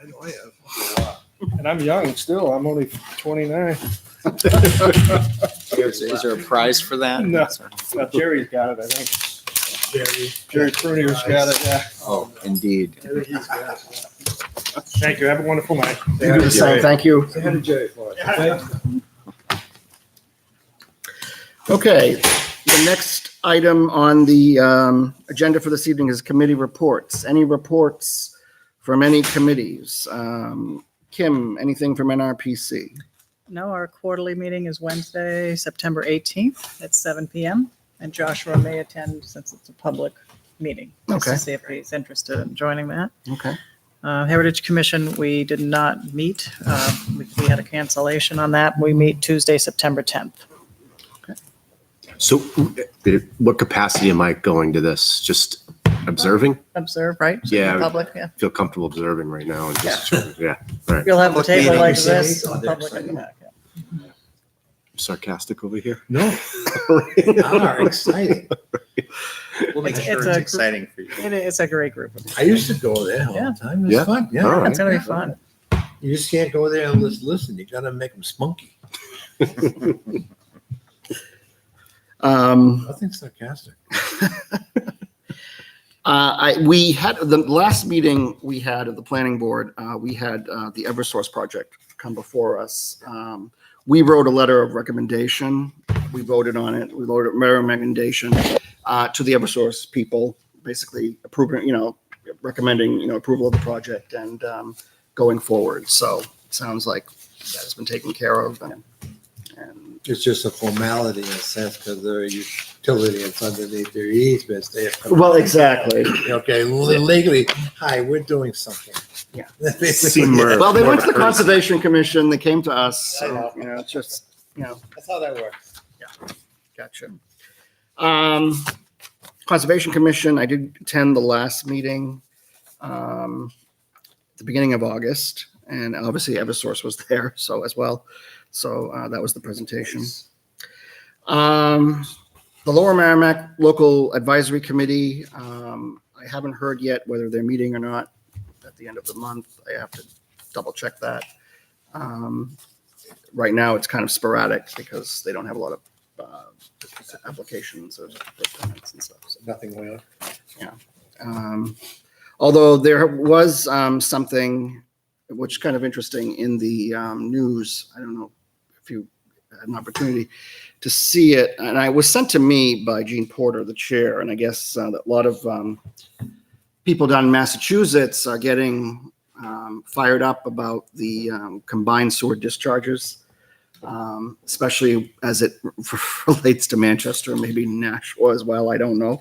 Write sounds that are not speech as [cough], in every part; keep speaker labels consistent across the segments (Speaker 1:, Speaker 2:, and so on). Speaker 1: I know I have.
Speaker 2: And I'm young still. I'm only 29.
Speaker 3: Is, is there a prize for that?
Speaker 2: No. Now Jerry's got it, I think.
Speaker 1: Jerry.
Speaker 2: Jerry Prunier's got it. Yeah.
Speaker 3: Oh, indeed.
Speaker 1: I think he's got it.
Speaker 2: Thank you. Have a wonderful night.
Speaker 1: You do the same.
Speaker 3: Thank you.
Speaker 1: Say hi to Jerry for us.
Speaker 3: Okay, the next item on the um, agenda for this evening is committee reports. Any reports from any committees? Um, Kim, anything from NRPC?
Speaker 4: No, our quarterly meeting is Wednesday, September 18th at 7 PM. And Joshua may attend since it's a public meeting. just
Speaker 3: Okay.
Speaker 4: To see if he's interested in joining that.
Speaker 3: Okay.
Speaker 4: Uh, Heritage Commission, we did not meet. Uh, We we had a cancellation on that. We meet Tuesday, September 10th.
Speaker 5: So did it- what capacity am I going to this? Just observing?
Speaker 4: Observe, right?
Speaker 5: Yeah.
Speaker 4: Public, yeah.
Speaker 5: Feel comfortable observing right now and just, yeah,
Speaker 4: You'll have a
Speaker 3: Public meeting,
Speaker 4: table like
Speaker 3: you
Speaker 1: say.
Speaker 4: this.
Speaker 1: Oh,
Speaker 4: and
Speaker 1: there's
Speaker 4: public at the
Speaker 1: something.
Speaker 4: back, yeah.
Speaker 5: sarcastic over here. [laughs]
Speaker 1: No, are Ah, exciting.
Speaker 6: We'll make
Speaker 4: It's-
Speaker 6: sure it's,
Speaker 4: it's a gr-
Speaker 6: exciting for you.
Speaker 4: It is a great group.
Speaker 1: I used to go there all
Speaker 4: Yeah.
Speaker 1: the time. It
Speaker 5: Yeah.
Speaker 1: was fun.
Speaker 5: All
Speaker 1: Yeah.
Speaker 5: right.
Speaker 4: It's going to be fun.
Speaker 1: You just can't go there and just listen. You gotta make them spunky.
Speaker 3: Um,
Speaker 1: Nothing sarcastic.
Speaker 3: Uh, I, we had, the last meeting we had of the planning board, uh, we had, uh, the Eversource project come before us. Um, we wrote a letter of recommendation. We voted on it. We wrote a letter of recommendation, uh, to the Eversource people, basically approving, you know, recommending, you know, approval of the project and, um, going forward. So it sounds like that has been taken care of and, and,
Speaker 1: It's just a formality in a sense because their utility is underneath their easements. They have.
Speaker 3: well, exactly.
Speaker 1: Okay, legally, hi, we're doing something. [laughs]
Speaker 3: Yeah.
Speaker 5: Seymour.
Speaker 3: Well, they went to the Conservation Commission. They came to us. So, you know, it's just, you know,
Speaker 1: That's how that works.
Speaker 3: Gotcha. Um, Conservation Commission, I did attend the last meeting, um, the beginning of August, and obviously Eversource was [laughs] there, so as well. So, uh, that was the presentation. Um, the Lower Merrimack Local Advisory Committee, um, I haven't heard yet whether they're meeting or not at the end of the month. I have to double check that. Um, right now, it's kind of sporadic because they don't have a lot of uh, applications or permits and stuff. So,
Speaker 1: Nothing went on.
Speaker 3: um, Although there was um, something which is kind of interesting in the um, news. I don't know if you had an opportunity to see it, and I it was sent to me by Gene Porter, the chair, and I guess uh, that a lot of um, people down in Massachusetts are getting um, fired up about the um, combined sewer discharges, um, especially as it [laughs] relates to Manchester, maybe Nashua as well. I don't know.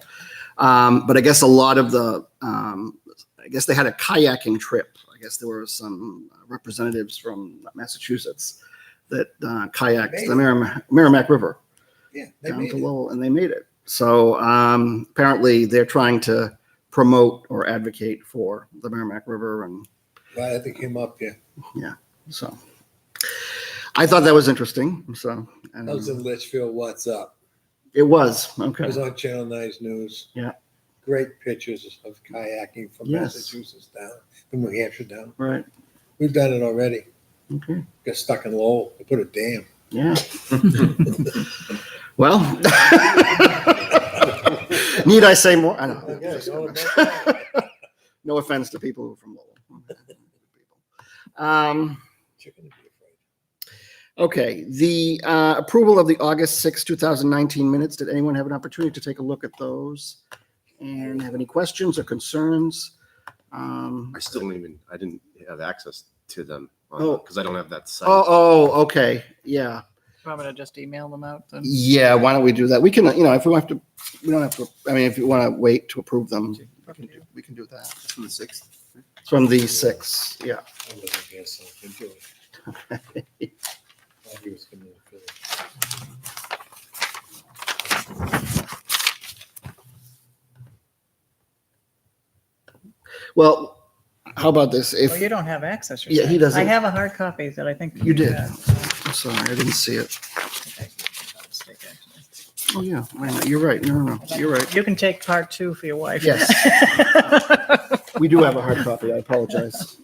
Speaker 3: Um, but I guess a lot of the, um, I guess they had a kayaking trip. I guess there were some representatives from Massachusetts that uh, kayaked the
Speaker 1: Amazing.
Speaker 3: Merrimack, Merrimack River
Speaker 1: Yeah. they
Speaker 3: down
Speaker 1: made
Speaker 3: to
Speaker 1: it.
Speaker 3: Lowell, and they made it. So um, apparently, they're trying to promote or advocate for the Merrimack River, and
Speaker 1: Right, I think came up, yeah.
Speaker 3: so I thought that was interesting. So and,
Speaker 1: I was in Litchfield, what's up?
Speaker 3: it was
Speaker 1: I
Speaker 3: okay.
Speaker 1: was on Channel Nine's news.
Speaker 3: Yeah.
Speaker 1: Great pictures of kayaking from
Speaker 3: Yes.
Speaker 1: Massachusetts down, from New Hampshire down.
Speaker 3: Right.
Speaker 1: We've done it already.
Speaker 3: Okay.
Speaker 1: Got stuck in Lowell. They put a dam. [laughs]
Speaker 3: Yeah. well, [laughs] need I say more? I
Speaker 1: Okay, go
Speaker 3: Oh, know.
Speaker 1: about
Speaker 3: [laughs] no offense to people who are from Lowell.
Speaker 1: [laughs]
Speaker 3: Um,
Speaker 1: Chicken would be afraid.
Speaker 3: Okay, the uh, approval of the August sixth, two 2019 minutes, did anyone have an opportunity to take a look at those? And have any questions or concerns? Um,
Speaker 5: I still don't even, I didn't have access to them
Speaker 3: Oh.
Speaker 5: because I don't have that site.
Speaker 3: Oh, oh, okay, yeah,
Speaker 4: I'm going to just email them out. then?
Speaker 3: yeah, why don't we do that? We can, you know, if we have to, we don't have to, I mean, if you want to wait to approve them, we can do- we can do that.
Speaker 5: From the sixth.
Speaker 3: It's From the 6, yeah.
Speaker 1: I wasn't here, so I couldn't do it.
Speaker 3: [laughs]
Speaker 1: Thought he was gonna do it.
Speaker 3: Well, how about this?
Speaker 4: Well,
Speaker 3: If,
Speaker 4: you don't have access.
Speaker 3: Yeah, he
Speaker 4: yourself.
Speaker 3: doesn't.
Speaker 4: I have a hard copy that I think.
Speaker 3: You did.
Speaker 4: uh,
Speaker 3: I'm sorry, I didn't see it.
Speaker 4: I was taking.
Speaker 3: Oh, yeah, wait a minute, you're right, no, no, no, [laughs] you're right.
Speaker 4: You [laughs] can take part two for your wife.
Speaker 3: Yes. We do have a hard copy. I apologize.